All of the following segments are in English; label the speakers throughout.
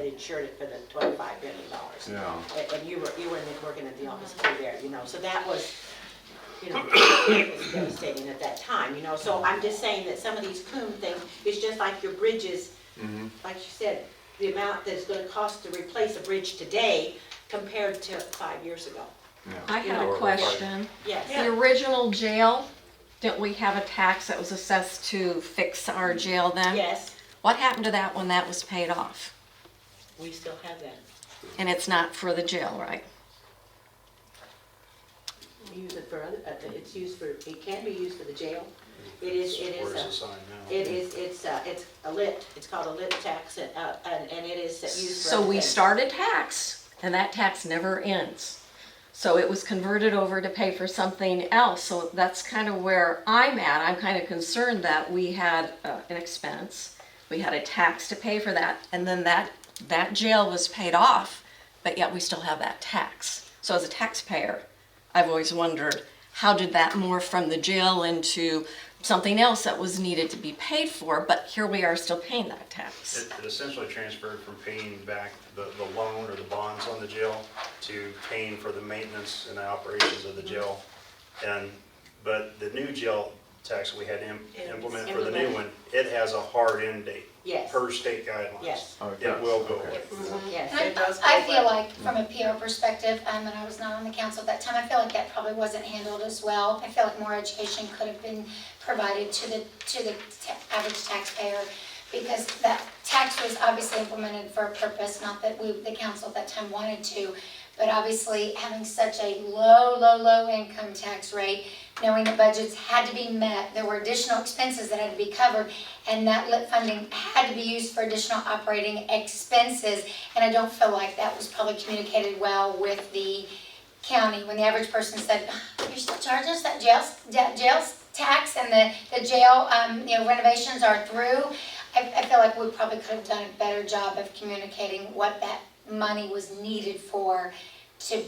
Speaker 1: insured it for the twenty-five million dollars.
Speaker 2: Yeah.
Speaker 1: And, and you were, you were in the- working at the office crew there, you know, so that was, you know, it was devastating at that time, you know, so I'm just saying that some of these Coombe things, it's just like your bridges, like you said, the amount that it's gonna cost to replace a bridge today compared to five years ago,
Speaker 2: yeah.
Speaker 3: I had a question.
Speaker 1: yes.
Speaker 3: The original jail, didn't we have a tax that was assessed to fix our jail then?
Speaker 1: Yes,
Speaker 3: What happened to that when that was paid off?
Speaker 1: we still have that.
Speaker 3: And it's not for the jail, right?
Speaker 1: We Use it for other, uh, it's used for, it can be used for the jail. It is, it is,
Speaker 4: Where's the
Speaker 1: a-
Speaker 4: sign now?
Speaker 1: it is, it's, uh, it's a lit, it's called a lit tax and, uh, and and it is used for.
Speaker 3: So
Speaker 1: other
Speaker 3: we
Speaker 1: things.
Speaker 3: started tax, and that tax never ends. So it was converted over to pay for something else, so that's kind of where I'm at. I'm kind of concerned that we had uh, an expense, we had a tax to pay for that, and then that, that jail was paid off, but yet we still have that tax. So as a taxpayer, I've always wondered, how did that morph from the jail into something else that was needed to be paid for, but here we are still paying that tax?
Speaker 4: It it essentially transferred from paying back the, the loan or the bonds on the jail to paying for the maintenance and the operations of the jail. And, but the new jail tax we had to im-
Speaker 1: It was
Speaker 4: implement for the new
Speaker 1: implemented.
Speaker 4: one, it has a hard end date.
Speaker 1: Yes.
Speaker 4: Per state guidelines.
Speaker 1: Yes.
Speaker 2: Oh, it
Speaker 4: It
Speaker 2: does,
Speaker 4: will go
Speaker 2: okay.
Speaker 4: away.
Speaker 1: Yes,
Speaker 5: I
Speaker 1: it does.
Speaker 5: I feel like, from a PR perspective, um, and I was not on the council at that time, I feel like that probably wasn't handled as well. I feel like more education could have been provided to the, to the ta- average taxpayer, because that tax was obviously implemented for a purpose, not that we, the council at that time wanted to, but obviously, having such a low, low, low income tax rate, knowing the budgets had to be met, there were additional expenses that had to be covered, and that lit funding had to be used for additional operating expenses. And I don't feel like that was probably communicated well with the county, when the average person said, "Oh, you're still charging us that jail, that jail tax and the, the jail, um, you know, renovations are through. I, I feel like we probably could have done a better job of communicating what that money was needed for to,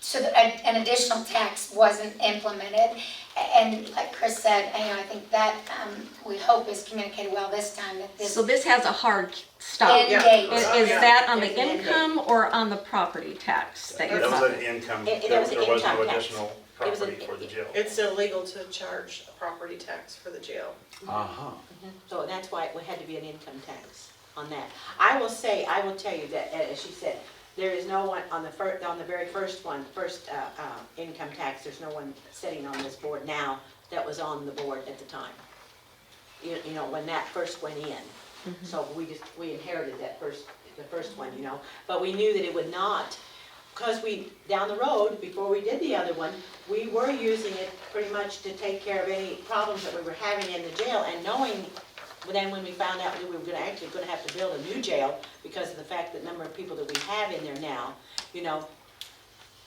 Speaker 5: so that a- an additional tax wasn't implemented. A- And like Chris said, you know, I think that, um, we hope is communicated well this time, that this
Speaker 3: So this has a hard stop.
Speaker 5: end date.
Speaker 3: Is
Speaker 1: Oh,
Speaker 3: is
Speaker 1: yeah.
Speaker 3: that on the
Speaker 1: It's an end
Speaker 3: income or on the property tax that you're
Speaker 4: That was an
Speaker 3: talking?
Speaker 4: income,
Speaker 1: It- it
Speaker 4: there
Speaker 1: was an
Speaker 4: there was no
Speaker 1: income tax.
Speaker 4: additional
Speaker 1: It was an-
Speaker 4: property for the jail.
Speaker 6: It's illegal to charge a property tax for the jail.
Speaker 2: Uh-huh.
Speaker 1: So that's why it had to be an income tax on that. I will say, I will tell you that, uh, as she said, there is no one on the fir, on the very first one, first, uh, uh, income tax, there's no one sitting on this board now that was on the board at the time. You, you know, when that first went in. So we just, we inherited that first, the first one, you know, but we knew that it would not, because we, down the road, before we did the other one, we were using it pretty much to take care of any problems that we were having in the jail and knowing but then when we found out that we were gonna, actually gonna have to build a new jail because of the fact that number of people that we have in there now, you know,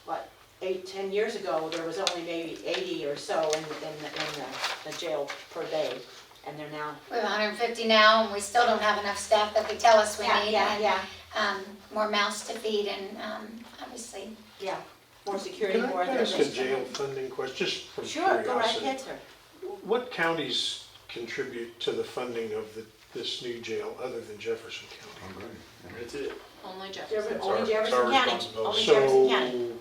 Speaker 1: what, eight, ten years ago, there was only maybe eighty or so in, in the, in the, the jail per day. And they're now,
Speaker 5: We have hundred and fifty now, and we still don't have enough staff that they tell us we
Speaker 1: yeah,
Speaker 5: need,
Speaker 1: yeah,
Speaker 5: and,
Speaker 1: yeah,
Speaker 5: um, more mouths to feed, and, um, obviously,
Speaker 1: yeah, more security, more.
Speaker 7: Can
Speaker 1: other
Speaker 7: I ask a
Speaker 1: things.
Speaker 7: jail funding question, just from
Speaker 1: Sure, go right ahead,
Speaker 7: curiosity?
Speaker 1: sir.
Speaker 7: What counties contribute to the funding of the- this new jail other than Jefferson County?
Speaker 4: That's it.
Speaker 3: Only
Speaker 1: Jefferson-
Speaker 4: It's our-
Speaker 1: Only
Speaker 4: it's our
Speaker 1: Jefferson County,
Speaker 4: responsibility.
Speaker 1: only Oh, Jefferson County.
Speaker 7: So,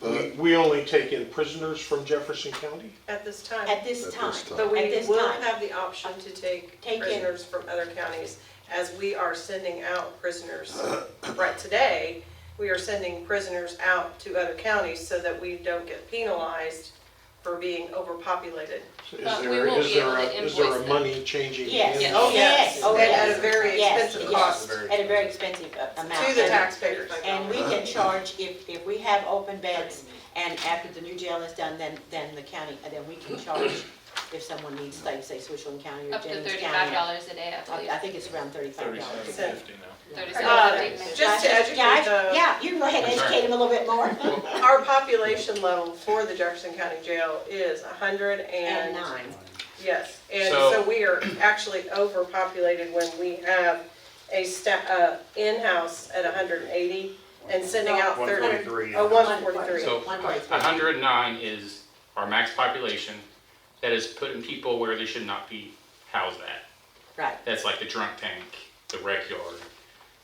Speaker 7: we- we only take in prisoners from Jefferson County?
Speaker 6: At this time,
Speaker 1: At this
Speaker 2: At
Speaker 1: time,
Speaker 2: this time.
Speaker 6: but
Speaker 1: at
Speaker 6: we
Speaker 1: this
Speaker 6: will
Speaker 1: time.
Speaker 6: have the option to take
Speaker 1: Take in.
Speaker 6: prisoners from other counties as we are sending out prisoners. Right today, we are sending prisoners out to other counties so that we don't get penalized for being overpopulated.
Speaker 7: So Is
Speaker 8: But we
Speaker 7: there,
Speaker 8: will
Speaker 7: is
Speaker 8: be
Speaker 7: there,
Speaker 8: able
Speaker 7: a-
Speaker 8: to
Speaker 7: is there a
Speaker 8: invoice them.
Speaker 7: money changing?
Speaker 1: Yes.
Speaker 7: in?
Speaker 1: Oh, yes. Oh,
Speaker 6: And
Speaker 1: yes.
Speaker 6: at a very
Speaker 1: Yes,
Speaker 6: expensive
Speaker 1: yes.
Speaker 6: cost to
Speaker 4: Very
Speaker 1: At a very expensive uh, amount.
Speaker 6: the taxpayers.
Speaker 1: And we can charge, if, if we have open beds, and after the new jail is done, then, then the county, uh, then we can charge if someone needs, like, say, Swishland County or
Speaker 8: Up to
Speaker 1: Jennings
Speaker 8: thirty-five
Speaker 1: County.
Speaker 8: dollars a day, I
Speaker 1: I I
Speaker 8: believe.
Speaker 1: think it's around thirty-five dollars.
Speaker 6: So-
Speaker 8: Thirty-seven
Speaker 6: Uh,
Speaker 8: fifty.
Speaker 6: Just to educate
Speaker 1: Guys,
Speaker 6: the.
Speaker 1: Yeah, you can go ahead and educate them a little bit more.
Speaker 6: Our population level for the Jefferson County Jail is hundred
Speaker 1: And
Speaker 6: and.
Speaker 1: nine.
Speaker 6: Yes, and
Speaker 9: So-
Speaker 6: so we are actually overpopulated when we have a sta, uh, in-house at hundred and eighty and sending out
Speaker 4: One
Speaker 6: thirty.
Speaker 4: forty-three.
Speaker 6: Oh, one forty-three.
Speaker 9: So
Speaker 1: One point three.
Speaker 9: 109 is our max population that is putting people where they should not be housed at.
Speaker 1: Right,
Speaker 9: That's like the drunk tank, the rec yard,